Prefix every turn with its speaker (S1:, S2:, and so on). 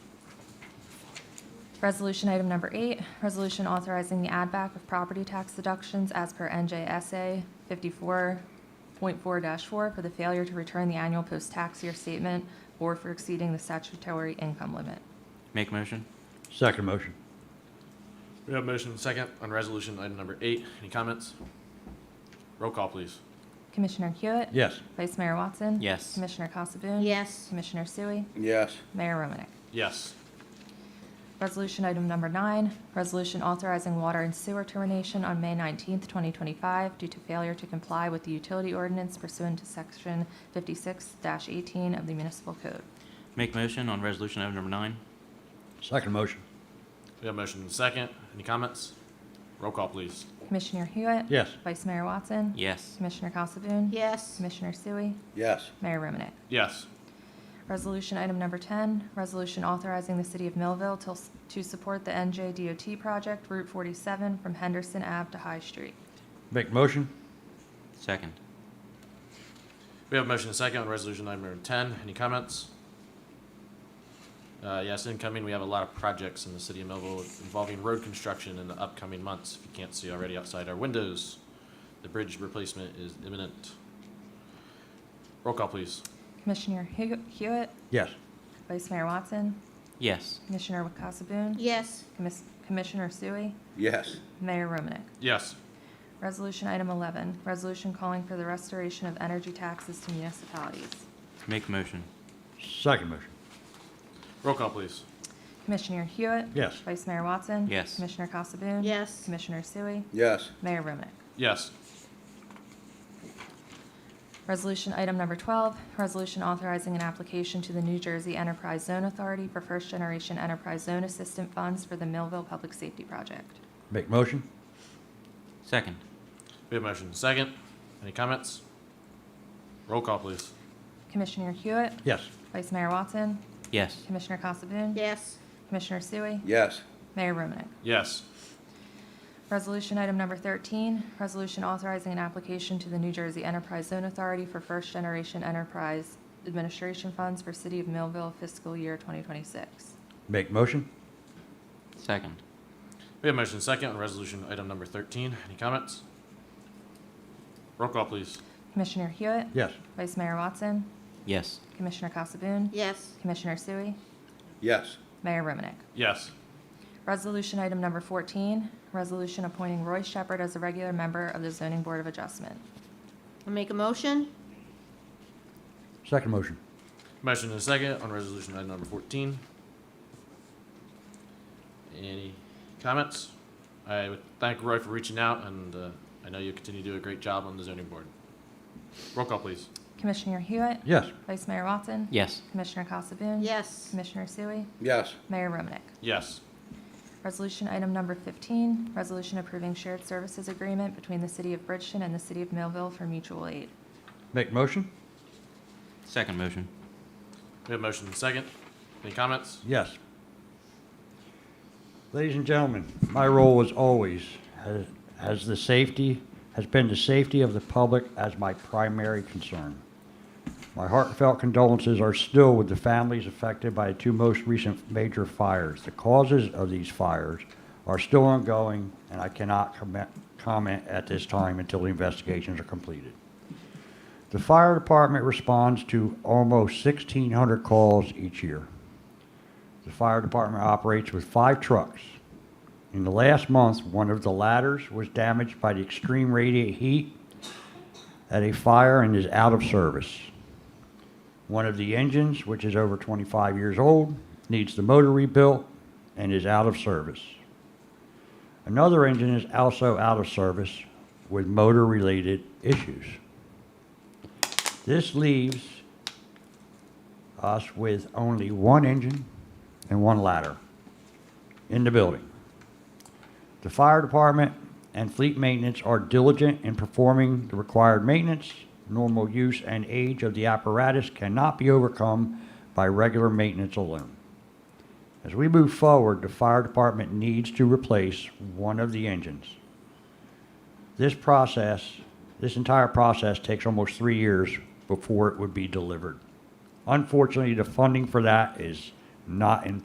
S1: Resolution item number eight, resolution authorizing the add back of property tax deductions as per NJSA 54.4-4 for the failure to return the annual post-tax year statement or for exceeding the statutory income limit.
S2: Make motion?
S3: Second motion.
S4: We have a motion and a second on resolution item number eight. Any comments? Roll call, please.
S1: Commissioner Hewitt?
S3: Yes.
S1: Vice Mayor Watson?
S2: Yes.
S1: Commissioner Casabun?
S5: yes,
S1: Commissioner Sui?
S6: yes,
S1: Mayor Romanek?
S4: Yes.
S1: Resolution item number nine, resolution authorizing water and sewer termination on May 19th, 2025 due to failure to comply with the utility ordinance pursuant to Section 56-18 of the Municipal Code.
S2: Make motion on resolution item number nine?
S3: Second motion.
S4: We have a motion and a second. Any comments? Roll call, please.
S1: Commissioner Hewitt?
S3: Yes.
S1: Vice Mayor Watson?
S2: Yes.
S1: Commissioner Casabun?
S5: yes,
S1: Commissioner Sui?
S6: yes,
S1: Mayor Romanek?
S4: Yes.
S1: Resolution item number 10, resolution authorizing the city of Millville to, to support the NJ DOT project Route 47 from Henderson Ave to High Street.
S3: Make motion?
S2: Second?
S4: We have a motion and a second on resolution item number ten. Any comments? Uh, yes, incoming, we have a lot of projects in the city of Millville involving road construction in the upcoming months. If you can't see already outside our windows, the bridge replacement is imminent. Roll call, please.
S1: Commissioner Hew- Hewitt?
S3: Yes.
S1: Vice Mayor Watson?
S2: Yes.
S1: Commissioner Casabun?
S5: yes,
S1: Commis- Commissioner Sui?
S6: yes,
S1: Mayor Romanek?
S4: Yes.
S1: Resolution item 11, resolution calling for the restoration of energy taxes to municipalities.
S2: Make motion?
S3: Second motion.
S4: Roll call, please.
S1: Commissioner Hewitt?
S3: Yes.
S1: Vice Mayor Watson?
S2: Yes.
S1: Commissioner Casabun?
S5: Yes.
S1: Commissioner Sui?
S6: yes,
S1: Mayor Romanek?
S4: Yes.
S1: Resolution item number 12, resolution authorizing an application to the New Jersey Enterprise Zone Authority for first-generation enterprise zone assistant funds for the Millville Public Safety Project.
S3: Make motion?
S2: Second?
S4: We have a motion and a second. Any comments? Roll call, please.
S1: Commissioner Hewitt?
S3: Yes.
S1: Vice Mayor Watson?
S2: Yes.
S1: Commissioner Casabun?
S5: yes,
S1: Commissioner Sui?
S6: yes,
S1: Mayor Romanek?
S4: Yes.
S1: Resolution item number 13, resolution authorizing an application to the New Jersey Enterprise Zone Authority for first-generation enterprise administration funds for City of Millville fiscal year 2026.
S3: Make motion?
S2: Second?
S4: We have a motion and a second on resolution item number thirteen. Any comments? Roll call, please.
S1: Commissioner Hewitt?
S3: Yes.
S1: Vice Mayor Watson?
S2: Yes.
S1: Commissioner Casabun?
S5: yes,
S1: Commissioner Sui?
S6: yes,
S1: Mayor Romanek?
S4: Yes.
S1: Resolution item number 14, resolution appointing Roy Shepherd as a regular member of the Zoning Board of Adjustment.
S5: I'll make a motion,
S3: Second motion.
S4: Motion and a second on resolution item number fourteen. Any comments? I would thank Roy for reaching out, and uh, I know you continue to do a great job on the zoning board. Roll call, please.
S1: Commissioner Hewitt?
S3: Yes.
S1: Vice Mayor Watson?
S2: Yes.
S1: Commissioner Casabun?
S5: yes,
S1: Commissioner Sui?
S6: yes,
S1: Mayor Romanek?
S4: Yes.
S1: Resolution item number 15, resolution approving shared services agreement between the City of Bridgeton and the City of Millville for mutual aid.
S3: Make motion?
S2: Second motion?
S4: We have a motion and a second. Any comments?
S3: Yes. Ladies and gentlemen, my role as always has, has the safety, has been the safety of the public as my primary concern. My heartfelt condolences are still with the families affected by the two most recent major fires. The causes of these fires are still ongoing, and I cannot comment, comment at this time until the investigations are completed. The fire department responds to almost 1,600 calls each year. The fire department operates with five trucks. In the last month, one of the ladders was damaged by the extreme radiant heat at a fire and is out of service. One of the engines, which is over 25 years old, needs the motor rebuilt and is out of service. Another engine is also out of service with motor related issues. This leaves us with only one engine and one ladder in the building. The fire department and fleet maintenance are diligent in performing the required maintenance. Normal use and age of the apparatus cannot be overcome by regular maintenance alone. As we move forward, the fire department needs to replace one of the engines. This process, this entire process takes almost three years before it would be delivered. Unfortunately, the funding for that is not in